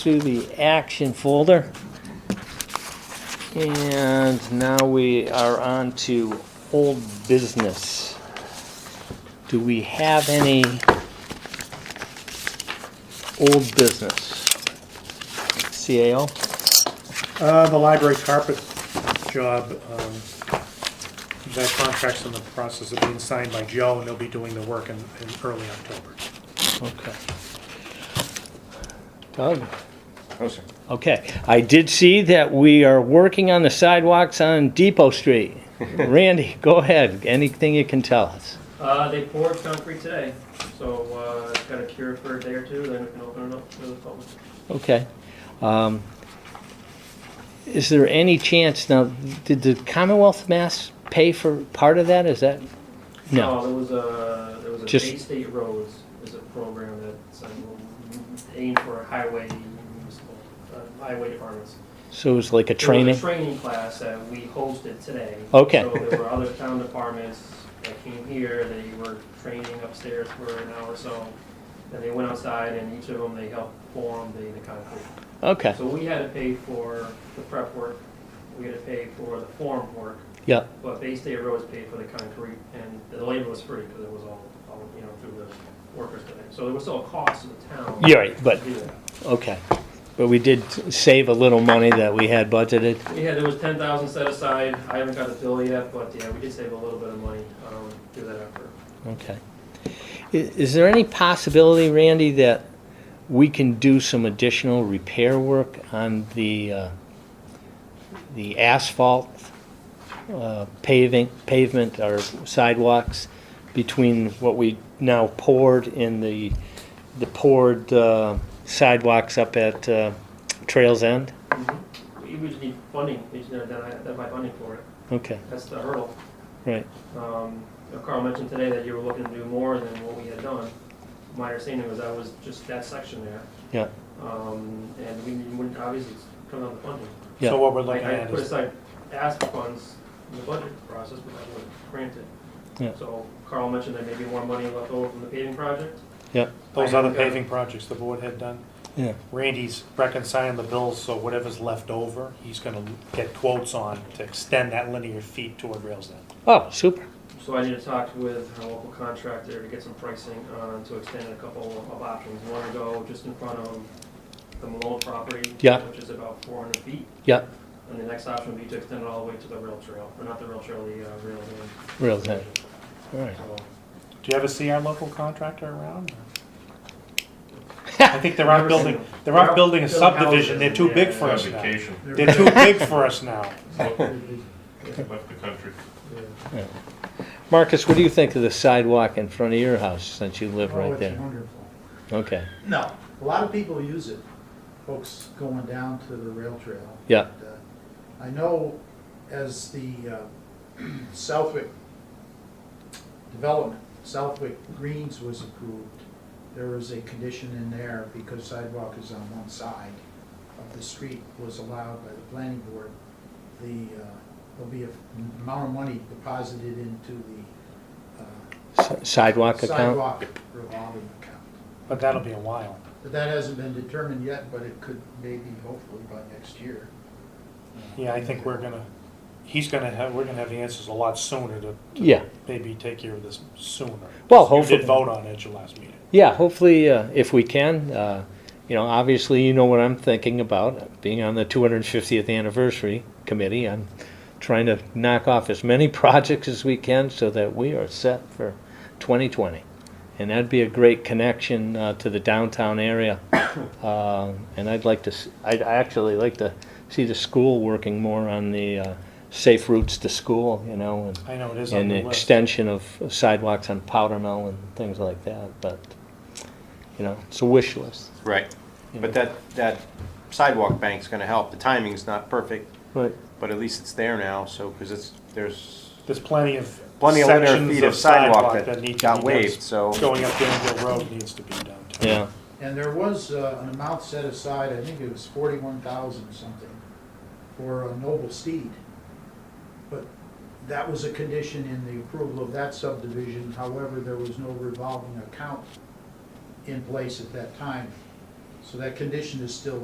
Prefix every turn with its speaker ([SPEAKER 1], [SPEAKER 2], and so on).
[SPEAKER 1] to the action folder. And now we are on to old business. Do we have any old business? CAO?
[SPEAKER 2] Uh, the library carpet job, um, that contract's in the process of being signed by Joe, and they'll be doing the work in, in early October.
[SPEAKER 1] Okay. Doug?
[SPEAKER 3] Oh, sir.
[SPEAKER 1] Okay, I did see that we are working on the sidewalks on Depot Street. Randy, go ahead, anything you can tell us.
[SPEAKER 4] Uh, they poured concrete today, so, uh, it's got a cure for a day or two, then we can open it up to the public.
[SPEAKER 1] Okay. Um, Is there any chance, now, did the Commonwealth of Mass pay for part of that, is that? No,
[SPEAKER 4] Oh, There was a, there was a
[SPEAKER 1] Just-
[SPEAKER 4] Bay State Roads is a program that's, um, aimed for highway, municipal, uh, highway departments.
[SPEAKER 1] so it was like a
[SPEAKER 4] There was
[SPEAKER 1] training?
[SPEAKER 4] a training class that we hosted today.
[SPEAKER 1] Okay.
[SPEAKER 4] So there were other town departments that came here, they were training upstairs for an hour or so. And they went outside and each of them, they helped form the, the concrete.
[SPEAKER 1] Okay,
[SPEAKER 4] So we had to pay for the prep work, we had to pay for the form work,
[SPEAKER 1] yeah,
[SPEAKER 4] but Bay State Roads paid for the concrete, and the labor was free, because it was all, all, you know, through the workers today. So there was still a cost to the town.
[SPEAKER 1] you're right, but,
[SPEAKER 4] to do that.
[SPEAKER 1] okay. But we did save a little money that we had budgeted.
[SPEAKER 4] We had, there was ten thousand set aside, I haven't got a bill yet, but yeah, we did save a little bit of money, um, through that effort.
[SPEAKER 1] Okay. I- Is there any possibility, Randy, that we can do some additional repair work on the, uh, the asphalt uh, paving, pavement or sidewalks between what we now poured and the, the poured uh, sidewalks up at uh, Trails End?
[SPEAKER 4] We we just need funding, we just need to identify funding for it,
[SPEAKER 1] Okay,
[SPEAKER 4] that's the hurdle.
[SPEAKER 1] right,
[SPEAKER 4] Um, you know, Carl mentioned today that you were looking to do more than what we had done. My understanding was that was just that section there.
[SPEAKER 1] yeah,
[SPEAKER 4] Um, and we wouldn't, obviously, it's coming on the funding.
[SPEAKER 1] Yeah.
[SPEAKER 2] So what we're looking
[SPEAKER 4] I I
[SPEAKER 2] at
[SPEAKER 4] put
[SPEAKER 2] is,
[SPEAKER 4] aside ask funds in the budget process, but I wasn't granted.
[SPEAKER 1] Yeah.
[SPEAKER 4] So Carl mentioned there may be more money left over from the paving project.
[SPEAKER 1] yeah,
[SPEAKER 2] those other paving projects the board had done,
[SPEAKER 1] yeah,
[SPEAKER 2] Randy's reconciling the bills, so whatever's left over, he's gonna get quotes on to extend that linear feet toward rails end.
[SPEAKER 1] oh, super,
[SPEAKER 4] So I need to talk with our local contractor to get some pricing on, to extend a couple of options. One to go just in front of the Malone property.
[SPEAKER 1] Yeah.
[SPEAKER 4] Which is about four hundred feet.
[SPEAKER 1] yeah,
[SPEAKER 4] And the next option would be to extend it all the way to the rail trail, or not the rail trail, the uh, rail. lane.
[SPEAKER 1] real thing, all right.
[SPEAKER 4] So,
[SPEAKER 2] Do you ever see our local contractor around? I think they're out
[SPEAKER 4] Never seen
[SPEAKER 2] building,
[SPEAKER 4] them.
[SPEAKER 2] they're out
[SPEAKER 4] They're
[SPEAKER 2] building a
[SPEAKER 4] building
[SPEAKER 2] subdivision,
[SPEAKER 4] houses.
[SPEAKER 2] they're too big
[SPEAKER 4] Yeah,
[SPEAKER 2] for
[SPEAKER 4] yeah.
[SPEAKER 2] us now.
[SPEAKER 5] vacation,
[SPEAKER 2] They're too big for us now.
[SPEAKER 5] left the country.
[SPEAKER 4] yeah.
[SPEAKER 1] Marcus, what do you think of the sidewalk in front of your house since you live
[SPEAKER 6] Oh,
[SPEAKER 1] right
[SPEAKER 6] it's
[SPEAKER 1] there?
[SPEAKER 6] wonderful.
[SPEAKER 1] Okay,
[SPEAKER 6] No, a lot of people use it, folks going down to the rail trail.
[SPEAKER 1] Yeah.
[SPEAKER 6] And, uh, I know as the uh, Southwick development, Southwick Greens was approved, there was a condition in there because sidewalk is on one side of the street was allowed by the planning board. The, uh, there'll be a amount of money deposited into the uh,
[SPEAKER 1] S- sidewalk account?
[SPEAKER 6] sidewalk revolving account.
[SPEAKER 2] But that'll be a while.
[SPEAKER 6] But that hasn't been determined yet, but it could maybe hopefully by next year.
[SPEAKER 2] Yeah, I think we're gonna, he's gonna have, we're gonna have the answers a lot sooner to
[SPEAKER 1] Yeah,
[SPEAKER 2] maybe take care of this sooner.
[SPEAKER 1] Well,
[SPEAKER 2] You
[SPEAKER 1] hopefully-
[SPEAKER 2] did vote on it at your last meeting.
[SPEAKER 1] yeah, hopefully, uh, if we can, uh, you know, obviously, you know what I'm thinking about, being on the 250th anniversary committee, I'm trying to knock off as many projects as we can so that we are set for 2020. And that'd be a great connection uh, to the downtown area. Um, And I'd like to, s- I'd I actually like to see the school working more on the uh, safe routes to school, you know, and
[SPEAKER 2] I know it is on
[SPEAKER 1] and
[SPEAKER 2] the
[SPEAKER 1] an
[SPEAKER 2] list.
[SPEAKER 1] extension of sidewalks on Powder Mill and things like that, but, you know, it's a wish list.
[SPEAKER 7] Right,
[SPEAKER 1] you
[SPEAKER 7] but
[SPEAKER 1] know.
[SPEAKER 7] that, that sidewalk bank's gonna help, the timing's not perfect,
[SPEAKER 1] Right,
[SPEAKER 7] but at least it's there now, so, because it's, there's
[SPEAKER 2] There's plenty of
[SPEAKER 7] plenty of linear
[SPEAKER 2] sections
[SPEAKER 7] feet
[SPEAKER 2] of sidewalk that need to be done.
[SPEAKER 7] got waived, so.
[SPEAKER 2] Going up Danville Road needs to be done. too.
[SPEAKER 1] yeah,
[SPEAKER 6] And there was uh, an amount set aside, I think it was forty-one thousand something, for a noble steed. But that was a condition in the approval of that subdivision, however, there was no revolving account in place at that time. So that condition is still